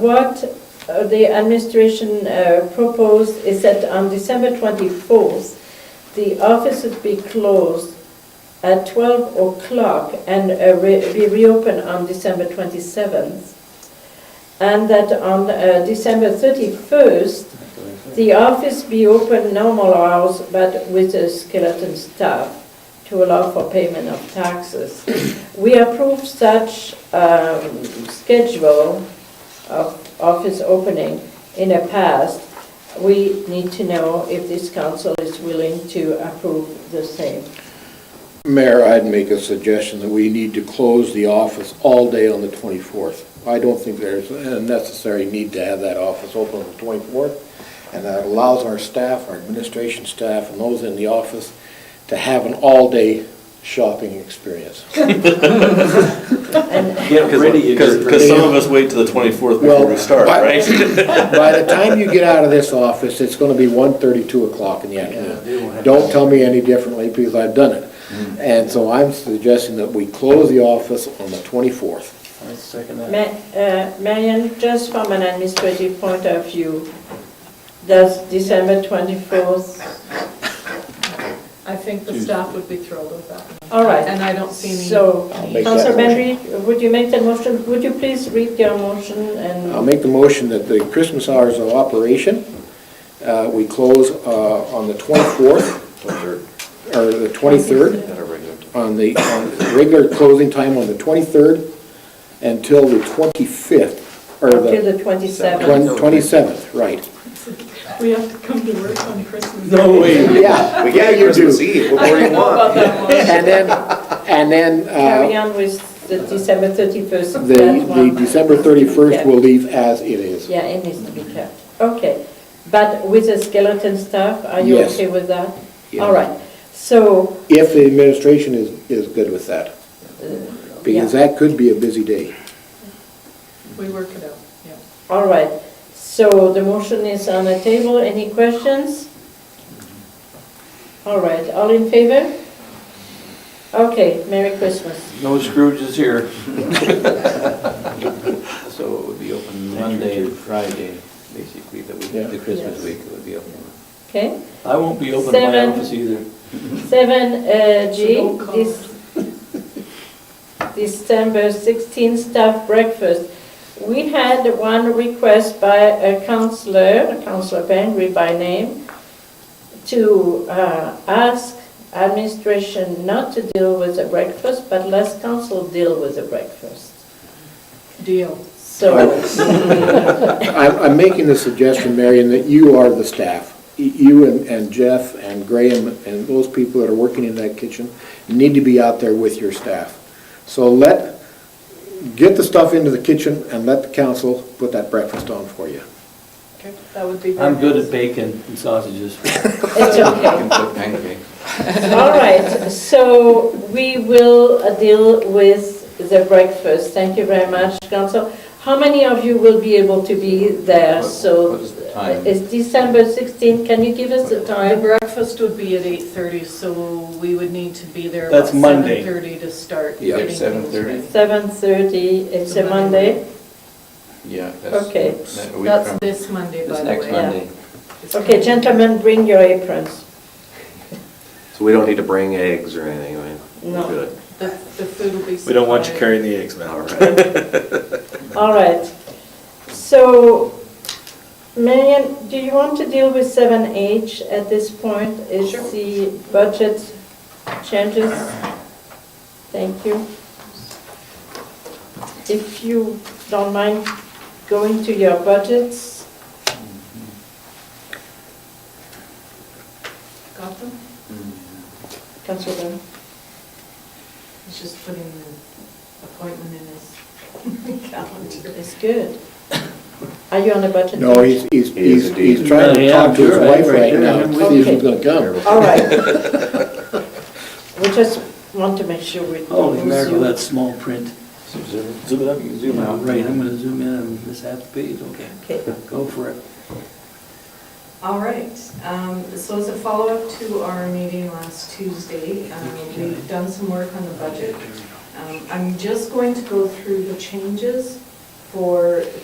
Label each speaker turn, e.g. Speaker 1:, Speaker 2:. Speaker 1: What uh, the administration uh, proposed is that on December 24th, the office would be closed at 12 o'clock and uh, re- be reopened on December 27th. And that on uh, December 31st, the office be open normal hours, but with a skeleton staff to allow for payment of taxes. We approve such um, schedule of office opening in the past. We need to know if this council is willing to approve the same.
Speaker 2: Mayor, I'd make a suggestion that we need to close the office all day on the 24th. I don't think there's a necessary need to have that office open on the 24th, and that allows our staff, our administration staff, and those in the office to have an all-day shopping experience.
Speaker 3: Get ready.
Speaker 4: Because some of us wait till the 24th before we
Speaker 2: Well,
Speaker 4: start,
Speaker 2: I-
Speaker 4: right?
Speaker 2: By the time you get out of this office, it's gonna be 1:30, 2 o'clock in the afternoon. Don't tell me any differently, because I've done it.
Speaker 4: Mm.
Speaker 2: And so I'm suggesting that we close the office on the 24th.
Speaker 3: I second that.
Speaker 1: Ma- uh, Marion, just from an administrative point of view, does December 24th,
Speaker 5: I think the staff would be thrilled with that.
Speaker 1: all right.
Speaker 5: And I don't see any,
Speaker 1: So,
Speaker 2: I'll make that
Speaker 1: Councilor
Speaker 2: motion.
Speaker 1: Benry, would you make that motion? Would you please read your motion
Speaker 2: I'll
Speaker 1: and,
Speaker 2: make the motion that the Christmas hours of operation, uh, we close uh, on the 24th, or the 23rd, on the, on the regular closing time on the 23rd until the 25th, or
Speaker 1: until
Speaker 2: the
Speaker 1: the 27th?
Speaker 2: twen- uh, 27th, right.
Speaker 5: we have to come to work on Christmas.
Speaker 2: Yeah,
Speaker 6: We
Speaker 2: yeah,
Speaker 6: get
Speaker 2: you
Speaker 6: Christmas
Speaker 2: do.
Speaker 6: Eve, what
Speaker 5: I
Speaker 6: more do
Speaker 5: don't
Speaker 6: you
Speaker 5: know
Speaker 6: want?
Speaker 5: about that
Speaker 2: And then, and then
Speaker 1: Carry
Speaker 2: uh,
Speaker 1: on with the December 31st.
Speaker 2: the,
Speaker 1: that
Speaker 2: the
Speaker 1: one.
Speaker 2: December 31st
Speaker 1: Yeah.
Speaker 2: will leave as it is.
Speaker 1: Yeah, it needs to be kept. Okay, but with the skeleton staff, are you
Speaker 2: Yes.
Speaker 1: okay with that?
Speaker 2: Yeah.
Speaker 1: All right, so,
Speaker 2: If the administration is, is good with that, because that could be a busy day.
Speaker 5: one. We work it out, yeah.
Speaker 1: all right, so the motion is on the table, any questions? All right, all in favor? Okay, Merry Christmas.
Speaker 3: No Scrooges here. So it would be open Monday and Friday, basically, that
Speaker 2: Yeah.
Speaker 3: week, the Christmas
Speaker 1: Yes.
Speaker 3: week, it would be open.
Speaker 1: Okay,
Speaker 3: I won't be open in my
Speaker 1: Seven.
Speaker 3: office either.
Speaker 1: seven uh, G,
Speaker 5: So don't call.
Speaker 1: this December 16 staff breakfast. We had one request by a counselor, Counselor Penry by name, to uh, ask administration not to deal with the breakfast, but let council deal with the breakfast.
Speaker 5: Deal.
Speaker 1: So,
Speaker 2: I'm, I'm making the suggestion, Marion, that you are the staff. Y- You and- and Jeff and Graham and those people that are working in that kitchen need to be out there with your staff. So let, get the stuff into the kitchen and let the council put that breakfast on for you.
Speaker 5: Okay, That would be.
Speaker 3: I'm good at bacon and sausages.
Speaker 1: it's okay.
Speaker 6: Pancake.
Speaker 1: All right, so we will uh, deal with the breakfast. Thank you very much, council. How many of you will be able to be there?
Speaker 6: What-
Speaker 1: So uh,
Speaker 6: what is the time?
Speaker 1: it's December 16. Can you give us the
Speaker 5: The
Speaker 1: time?
Speaker 5: breakfast would be at 8:30, so we would need to be there.
Speaker 3: That's
Speaker 5: about
Speaker 3: Monday.
Speaker 5: 7:30 to start.
Speaker 6: Yeah,
Speaker 5: getting things
Speaker 6: 7:30.
Speaker 5: ready.
Speaker 1: 7:30, it's a Monday.
Speaker 6: Yeah, that's.
Speaker 1: Okay.
Speaker 6: that we
Speaker 5: That's
Speaker 6: come-
Speaker 5: this Monday, by
Speaker 6: This
Speaker 5: the
Speaker 6: next
Speaker 5: way.
Speaker 1: one.
Speaker 6: Monday.
Speaker 5: It's
Speaker 1: Okay, gentlemen, bring your aprons.
Speaker 6: So we don't need to bring eggs or anything, I mean? we're
Speaker 1: No.
Speaker 6: good.
Speaker 5: The, the food will be.
Speaker 7: We don't want you
Speaker 5: supplied.
Speaker 7: carrying the eggs,
Speaker 6: All
Speaker 7: man.
Speaker 6: right.
Speaker 1: All right. So, Marion, do you want to deal with 7H at this point? Is
Speaker 5: Sure.
Speaker 1: the budget changes? Thank you. If you don't mind going to your budgets,
Speaker 5: Got them?
Speaker 1: Councilor.
Speaker 5: He's just putting the appointment in his calendar.
Speaker 1: It's good. Are you on the budget?
Speaker 2: No, he's, he's,
Speaker 6: He's a
Speaker 2: he's he's
Speaker 6: decent-
Speaker 2: trying to
Speaker 3: Yeah,
Speaker 2: talk to his
Speaker 3: sure,
Speaker 2: wife
Speaker 3: right,
Speaker 2: right
Speaker 3: right,
Speaker 2: now,
Speaker 3: I'm
Speaker 2: to
Speaker 1: with
Speaker 2: see if
Speaker 1: you.
Speaker 2: he's gonna come.
Speaker 1: All right. We just want to make sure we
Speaker 3: Oh,
Speaker 1: don't
Speaker 8: Holy
Speaker 1: lose
Speaker 8: mackerel,
Speaker 1: you.
Speaker 8: that small print.
Speaker 3: Zoom it up, you can zoom out.
Speaker 8: Right, I'm gonna zoom in on this half page, okay,
Speaker 1: Okay.
Speaker 8: go for it.
Speaker 5: All right, um, so as a follow-up to our meeting last Tuesday, um, we've done some work on the budget. Um, I'm just going to go through the changes for